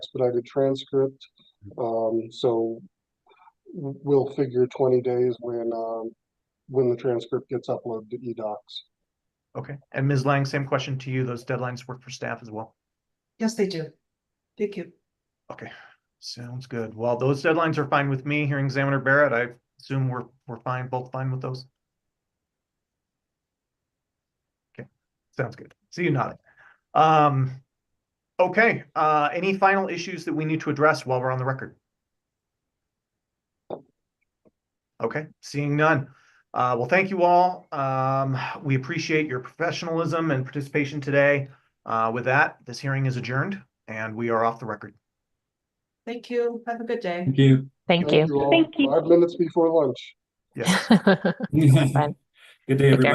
expedited transcript. Um, so w- we'll figure twenty days when, um, when the transcript gets uploaded to E eDocs. Okay, and Ms. Lang, same question to you. Those deadlines work for staff as well. Yes, they do. Thank you. Okay, sounds good. Well, those deadlines are fine with me. Hearing examiner Barrett, I assume we're, we're fine, both fine with those. Okay, sounds good. See you nodding. Um, okay, uh, any final issues that we need to address while we're on the record? Okay, seeing none. Uh, well, thank you all. Um, we appreciate your professionalism and participation today. Uh, with that, this hearing is adjourned and we are off the record. Thank you. Have a good day. Thank you. Thank you. all. Thank you. Five minutes before lunch. Yes. Good day, Take care. everybody.